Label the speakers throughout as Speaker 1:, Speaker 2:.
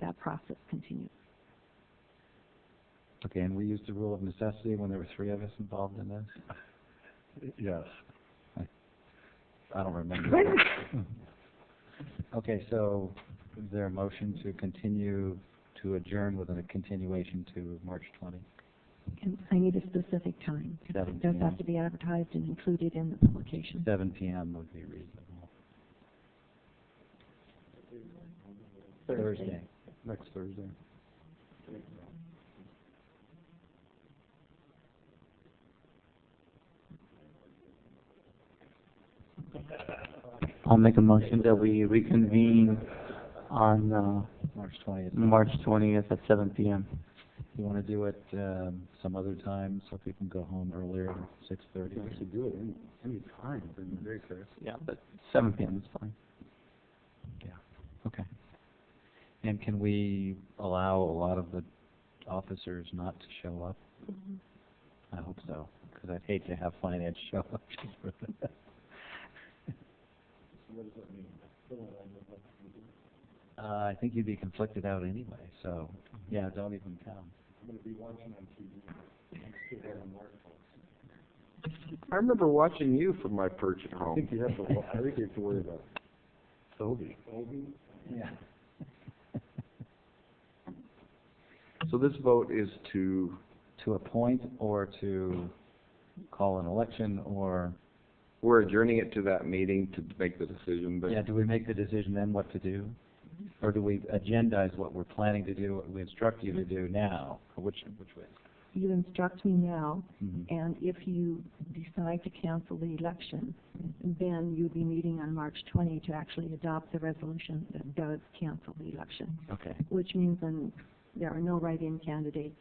Speaker 1: the process continues.
Speaker 2: Okay, and we used the rule of necessity when there were three of us involved in this?
Speaker 3: Yes.
Speaker 2: I don't remember. Okay, so is there a motion to continue, to adjourn with a continuation to March 20?
Speaker 1: And I need a specific time.
Speaker 2: 7
Speaker 1: It does
Speaker 2: p.m.
Speaker 1: have to be advertised and included in the publication.
Speaker 2: 7 PM would be reasonable. Thursday.
Speaker 3: Next Thursday.
Speaker 4: I'll make a motion that we reconvene on, uh,
Speaker 2: March 20th.
Speaker 4: March twentieth at seven PM.
Speaker 2: You want to do it um, some other time so people can go home earlier, 6:30?
Speaker 3: We should do it any, any time during the day, Chris.
Speaker 4: Yeah, but seven PM is fine.
Speaker 2: Okay. And can we allow a lot of the officers not to show up? I hope so, because I'd hate to have finance show up just for that. Uh, I think you'd be conflicted out anyway, so, yeah, don't even come.
Speaker 5: I remember watching you from my perch at
Speaker 3: I
Speaker 5: home.
Speaker 3: think you have to, wo- I think you have to worry about Toby.
Speaker 2: Yeah.
Speaker 5: So this vote is to,
Speaker 2: To appoint or to call an election or,
Speaker 5: we're adjourning it to that meeting to make the decision, but
Speaker 2: yeah, do we make the decision then what to do? Or do we agendize what we're planning to do, what we instruct you to do now? Which, which way?
Speaker 1: You instruct me now,
Speaker 2: Mhm.
Speaker 1: and if you decide to cancel the election, then you'll be meeting on March 20 to actually adopt the resolution that does cancel the election,
Speaker 2: Mm-hmm. Okay,
Speaker 1: which means then there are no write-in candidates,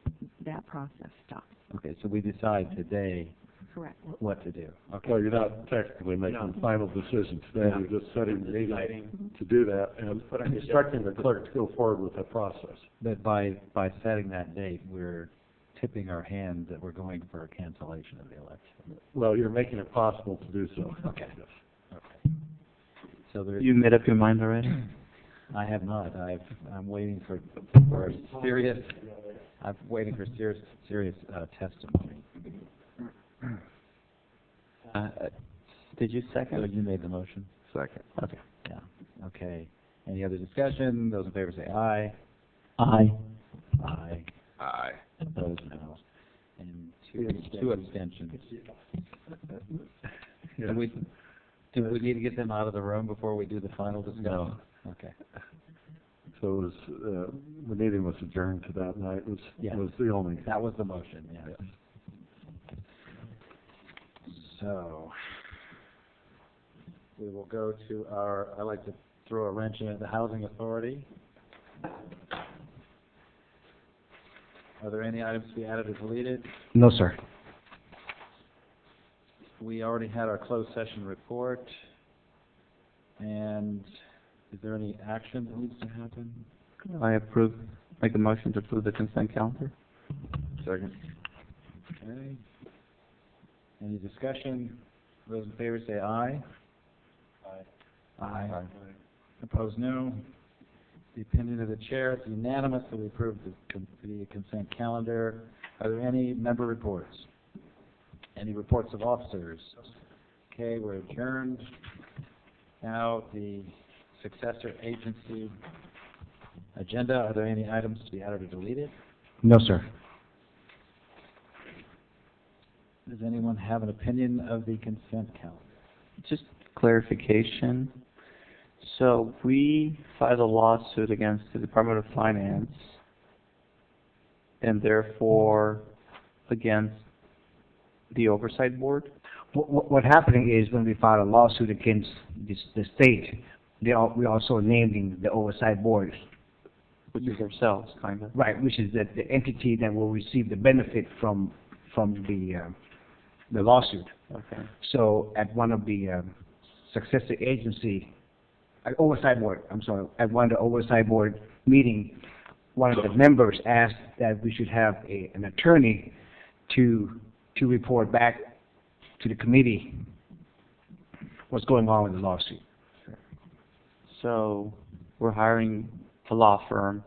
Speaker 1: that process stops.
Speaker 2: okay, so we decide today
Speaker 1: Correct.
Speaker 2: what to do. Okay,
Speaker 3: Well, you're not technically making final decisions today, you're just setting the meeting to do that and instructing the clerk to go forward with that process.
Speaker 2: But by, by setting that date, we're tipping our hand that we're going for a cancellation of the election.
Speaker 3: Well, you're making it possible to do so.
Speaker 2: Okay.
Speaker 3: Yes.
Speaker 2: Okay. So there,
Speaker 4: You made up your mind already?
Speaker 2: I have not, I've, I'm waiting for, for a serious, I'm waiting for serious, serious, uh, testimony.
Speaker 4: Uh, uh, did you
Speaker 2: So
Speaker 4: second?
Speaker 2: you made the motion?
Speaker 5: second.
Speaker 4: Okay.
Speaker 2: Yeah, okay. Any other discussion? Those in favor say aye.
Speaker 4: Aye.
Speaker 2: Aye.
Speaker 5: Aye.
Speaker 2: Opposed, no. And two, two abstentions.
Speaker 3: Yes.
Speaker 2: Do we, do we need to get them out of the room before we do the final discussion?
Speaker 3: No.
Speaker 2: Okay.
Speaker 3: So it was, uh, the meeting was adjourned to that night, was,
Speaker 2: Yeah.
Speaker 3: was the only.
Speaker 2: That was the motion, yeah. So, we will go to our, I like to throw a wrench in at the Housing Authority. Are there any items to be added or deleted?
Speaker 4: No, sir.
Speaker 2: We already had our closed session report. And is there any action that needs to happen?
Speaker 4: I approve, make a motion to approve the consent calendar?
Speaker 5: Second.
Speaker 2: Okay. Any discussion? Those in favor say aye. Aye. Aye. Opposed, no. The opinion of the chair is unanimous that we approve the con- the consent calendar. Are there any member reports? Any reports of officers? Okay, we're adjourned. Now, the successor agency agenda, are there any items to be added or deleted?
Speaker 4: No, sir.
Speaker 2: Does anyone have an opinion of the consent calendar?
Speaker 4: Just clarification. So we filed a lawsuit against the Department of Finance and therefore against the Oversight Board?
Speaker 6: What- What, what happening is when we filed a lawsuit against this, the state, they are, we also naming the oversight board.
Speaker 4: which is ourselves, kind of.
Speaker 6: Right, which is the, the entity that will receive the benefit from, from the, uh, the lawsuit.
Speaker 4: Okay.
Speaker 6: So at one of the, um, successor agency, uh, oversight board, I'm sorry, at one of the oversight board meeting, one of the members asked that we should have a, an attorney to, to report back to the committee what's going on with the lawsuit.
Speaker 4: So we're hiring a law firm